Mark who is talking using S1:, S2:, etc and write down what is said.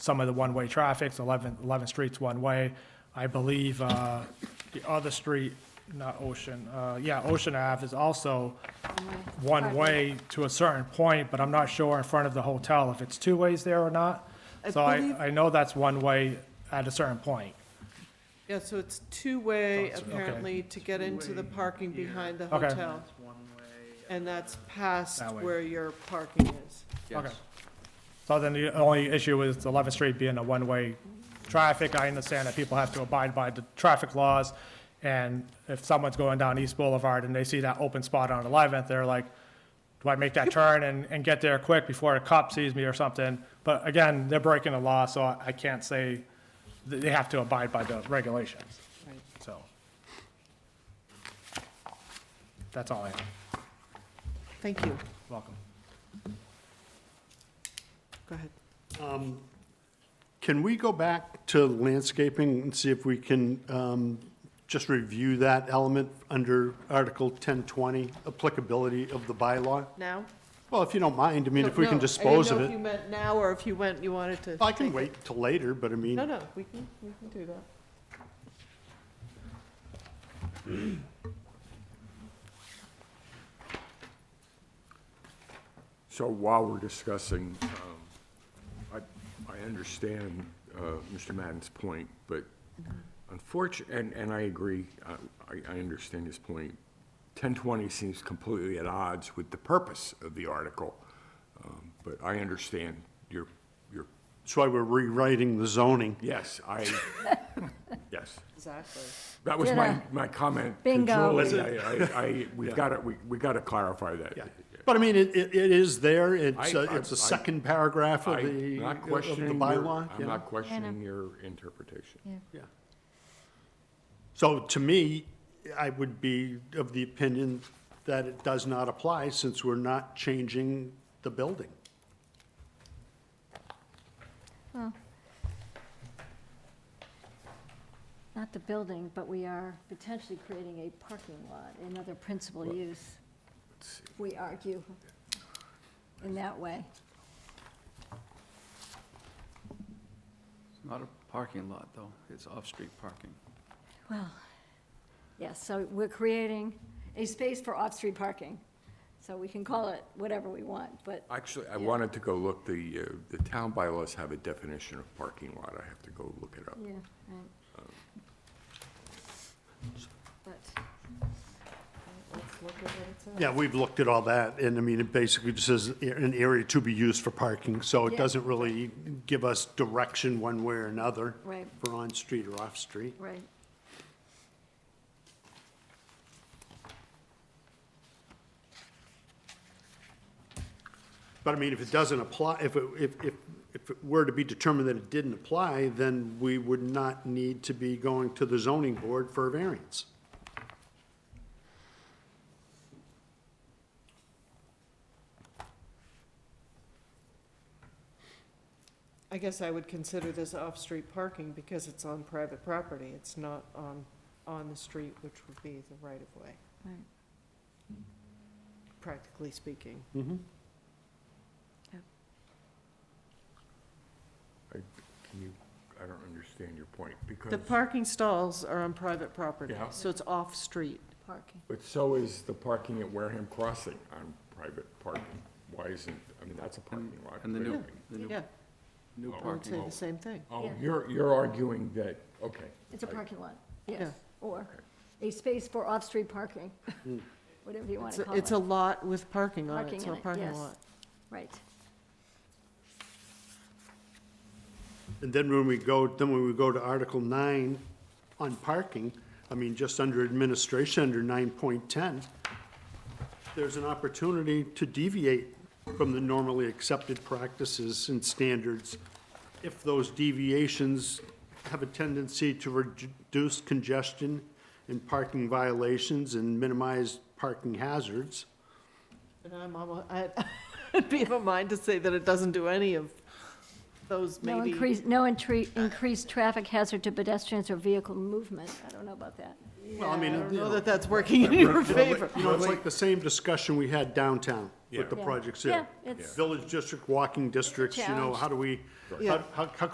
S1: some of the one-way traffic, 11, 11 streets one-way. I believe uh, the other street, not Ocean, uh, yeah, Ocean Ave is also one-way to a certain point, but I'm not sure in front of the hotel if it's two ways there or not.
S2: I
S1: So I,
S2: believe-
S1: I know that's one-way at a certain point.
S2: Yeah, so it's two-way
S1: So it's- okay.
S2: apparently to get into the
S3: Two-way
S2: parking
S3: here.
S2: behind the
S1: Okay.
S2: hotel.
S3: It's one way. uh,
S2: And that's past
S1: That way.
S2: where your parking is.
S1: Okay. So then the only issue is 11th Street being a one-way traffic. I understand that people have to abide by the traffic laws, and if someone's going down East Boulevard and they see that open spot on 11th, they're like, do I make that turn and, and get there quick before a cop sees me or something? But again, they're breaking the law, so I- I can't say, that they have to abide by the regulations, so. That's all I have.
S2: Thank you.
S1: Welcome.
S2: Go ahead.
S4: Can we go back to landscaping and see if we can um, just review that element under Article 1020, applicability of the bylaw?
S2: Now?
S4: Well, if you don't mind, I mean, if we
S2: No,
S4: can dispose of
S2: I didn't
S4: it.
S2: know if you meant now or if you went, you wanted to.
S4: I can
S2: take it.
S4: wait till later, but I mean,
S2: No, no, we can, we can do that.
S5: So while we're discussing, um, I, I understand uh, Mr. Madden's point, but unfortunately, and, and I agree, I, I- I understand his point. 1020 seems completely at odds with the purpose of the article, um, but I understand your, your,
S4: that's why we're rewriting the zoning.
S5: yes, I, yes.
S2: Exactly.
S5: That was my, my comment. to
S6: Bingo.
S5: Julie. I, I, I- we've got to, we, we got to clarify that.
S4: But I mean, it, it it is there, it's,
S5: I-
S4: uh,
S5: I-
S4: it's the
S5: I-
S4: second paragraph of
S5: I'm
S4: the, of
S5: not
S4: the
S5: questioning your,
S4: bylaw.
S5: I'm
S4: you know?
S5: not questioning your interpretation.
S4: Yeah. So to me, I would be of the opinion that it does not apply since we're not changing the building.
S6: Not the building, but we are potentially creating a parking lot, another principal use, we argue, in that way.
S3: It's not a parking lot, though. It's off-street parking.
S6: Well, yes, so we're creating a space for off-street parking, so we can call it whatever we want, but
S5: Actually, I wanted to go look, the, uh, the town bylaws have a definition of parking lot. I have to go look it up.
S6: Yeah, right. But,
S2: Let's look at what it says.
S4: Yeah, we've looked at all that, and I mean, it basically just says an area to be used for parking, so it
S6: Yeah.
S4: doesn't really give us direction one way or another.
S6: Right.
S4: For on-street or off-street.
S6: right,
S4: But I mean, if it doesn't apply, if it, if, if, if it were to be determined that it didn't apply, then we would not need to be going to the zoning board for a variance.
S2: I guess I would consider this off-street parking because it's on private property. It's not on, on the street, which would be the right-of-way,
S6: right,
S2: practically speaking.
S5: I, can you, I don't understand your point, because,
S2: The parking stalls are on private property,
S5: Yeah.
S2: so it's off-street.
S6: parking.
S5: but so is the parking at Wareham Crossing on private parking. Why isn't, I mean, that's a parking lot.
S3: And the
S5: but-
S3: new, the new,
S2: Yeah,
S3: new
S2: I would say
S3: parking.
S2: the same thing.
S5: Oh,
S6: Yeah.
S5: you're, you're arguing that, okay.
S6: It's a
S5: I-
S6: parking lot,
S2: Yeah.
S6: yes, or a space for off-street parking, whatever you want
S2: It's
S6: to
S2: a-
S6: call it.
S2: It's a lot with parking on
S6: Parking
S2: it, so
S6: in
S2: a
S6: it,
S2: parking
S6: yes.
S2: lot.
S6: Right.
S4: And then when we go, then when we go to Article nine on parking, I mean, just under administration, under nine point ten, there's an opportunity to deviate from the normally accepted practices and standards if those deviations have a tendency to reduce congestion and parking violations and minimize parking hazards.
S2: And I'm almost, I'd be of a mind to say that it doesn't do any of those
S6: No
S2: maybe.
S6: increase, no intre- increased traffic hazard to pedestrians or vehicle movement. I don't know about that.
S4: Well, I mean,
S2: I don't
S4: you
S2: know
S4: know,
S2: that that's working in your favor.
S4: You know, it's like the same discussion we had downtown with the
S6: Yeah.
S4: projects
S6: Yeah,
S4: here.
S6: it's-
S4: Village district, walking districts, you know,
S6: Challenge.
S4: how do we,
S2: Yeah.
S4: how, how- how